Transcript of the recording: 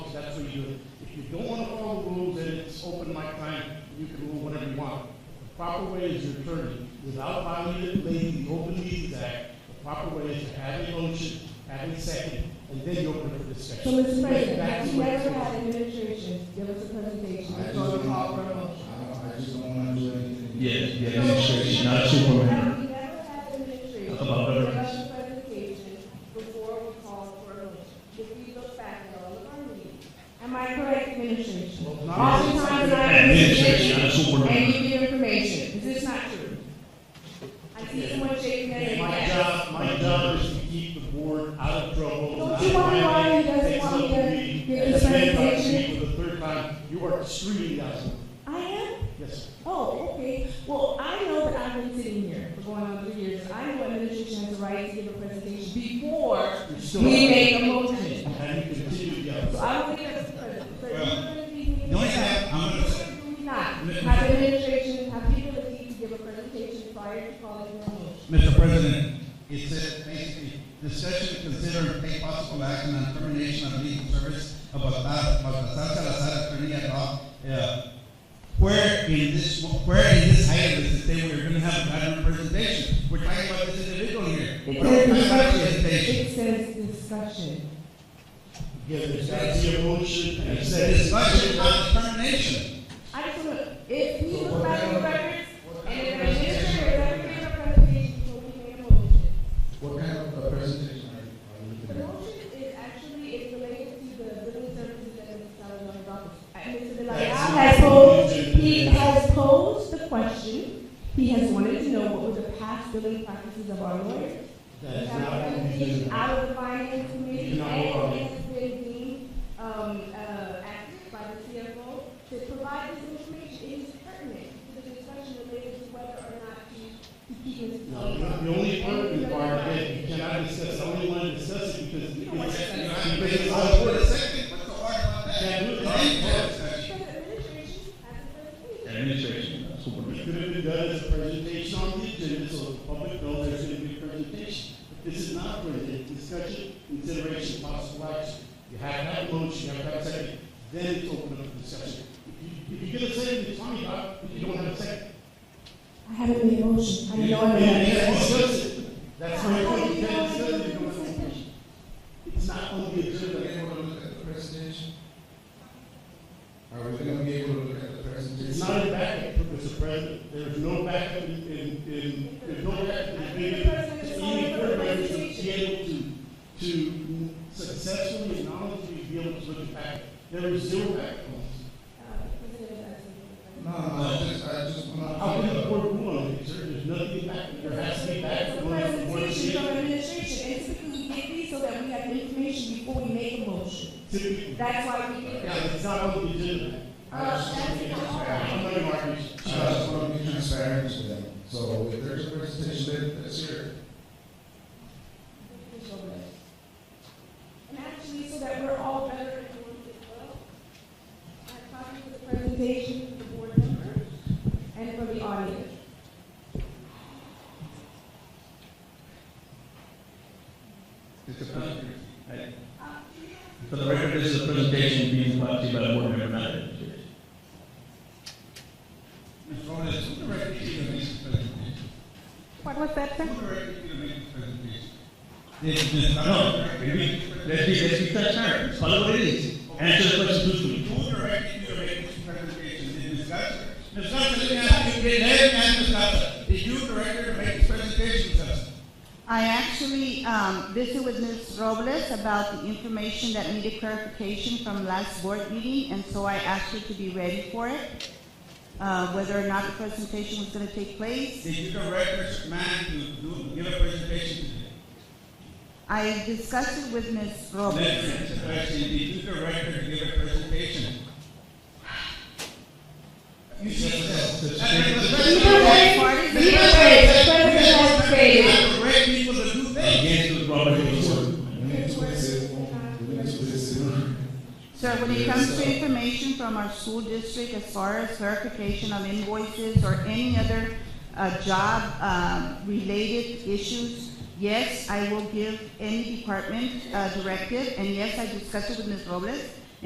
to you, if you don't want to follow the rules, then it's open mic time, you can rule whatever you want. The proper way is your attorney, without violating the Open Meetings Act, the proper way is to have a motion, have a second, and then you open it for So, discussion. Mr. Make President, that have the you way it's ever supposed had administration give us a presentation I just before we don't, call for I a motion? don't- I just don't wanna do anything. Yes, the administration, not Superman. Have you ever had administration About give veterans. us a presentation before we call for a motion? If we look back at all of our meetings, am I correct, administration? Well, not- Oftentimes I. Administration, not And Superman. you give information, is this not true? I see someone shaking their head. My yes. job, my job is to keep the board out of trouble. Don't you wonder why he doesn't Takes want up to the meeting, give and his the man by the presentation? seat for the third time, you are screaming at him. I am? Yes, sir. Oh, okay. Well, I know that I've been sitting here for going on three years. I know administration has the right to give a presentation before You're we still- make a motion. And you continue to So yell. I don't think that's the president. But Well, we're gonna be- The only thing I- I'm gonna say, Do we not have administration have the ability to give a presentation prior to calling a motion? Mr. President, it says basically, discussion, consider, and take possible action on termination of legal service of Balta- Baltasar Salazar, attorney at law. Uh, Where in this, where in this item is that they were gonna have a pattern presentation? We're talking about this individual here. We're not talking about presentation. It says discussion. Yeah, there's got to be a motion and a It's a second. discussion on termination. I just want to, if we look back at the records, and if the administrator has ever given a presentation before we make a motion, What kind of presentation The motion is actually, it's related to the building services that Mr. Salazar brought. Uh, Mr. De La Hoya has posed, he has posed the question, he has wanted to know what were the past billing practices of our lawyers. That We is have not a what we do. presentation out of the finance You committee, know, and um, it has been deemed, um, uh, asked by the CFO to provide this information, it is pertinent to the discussion related to whether or not to, to keep Mr. No, Salazar. the only part we require that you cannot discuss, I only want to discuss it because You don't want to it's- discuss I because think it's it's out of all for order. the second, what's so hard about that? Yeah, do it. Because the administration has a presentation. Administration, not It Superman. could have been done as a presentation on the agenda, so the public knows there's going to be a presentation. This is not for a discussion, consideration, possible action. You have to have a motion, you have to have a second, then it's open up for discussion. If you- If you get a second, it's fine, but if you don't have a second, I haven't made a motion. I you know know, I'm you not. can't discuss it. That's my How point, do you you know can't I'm discuss it, you doing don't this have a motion. decision? It's not on the agenda. Are we gonna be able to look at the presentation? It's not a backup, Mr. President. There's no backup in, in, in, there's no backup in the Mr. video. President, it's all Any over the board member should be presentation. able to, to successfully and knowledgeably be able to look at backup. There is zero backup. Uh, President, I think- No, no, I just, I just wanna. How can the board rule on it, sir? There's nothing backup. There has to be It's backup. a presentation from administration, and typically we get these so that we have information before we make a motion. Typically, That's why we get. yeah, it's not on the agenda. Uh, that's not all. I'm not even arguing. I just wanna be transparent with them, so if there's a presentation, let's hear it. And actually, so that we're all better informed as well, I have copies of the presentation from the board members and from the audience. For the record, this is a presentation being brought to you by the board member, not the administration. Mr. Flores, who directed you to make this presentation? What was that, sir? Who directed you to make this presentation? Yes, yes, no, maybe, let's be, let's be transparent, follow what it is, answer the question truthfully. Who directed you to make this presentation? Did Ms. Gutsa? Ms. Gutsa, let me ask you, let me ask Ms. Gutsa, did you direct her to make this presentation, Gutsa? I actually um, visited with Ms. Robles about the information that needed clarification from last board meeting, and so I asked her to be ready for it, uh, whether or not the presentation was going to take place. Did you direct this man to do, give a presentation today? I discussed it with Ms. Let Robles. me ask the question, did you direct her to give a presentation? You said so. Either way, either way, the president has stated. Direct people to do things. Against the Robert Rules. Sir, when it comes to information from our school district as far as verification of invoices or any other uh, job-related issues, yes, I will give any department uh, directive, and yes, I discussed it with Ms. Robles.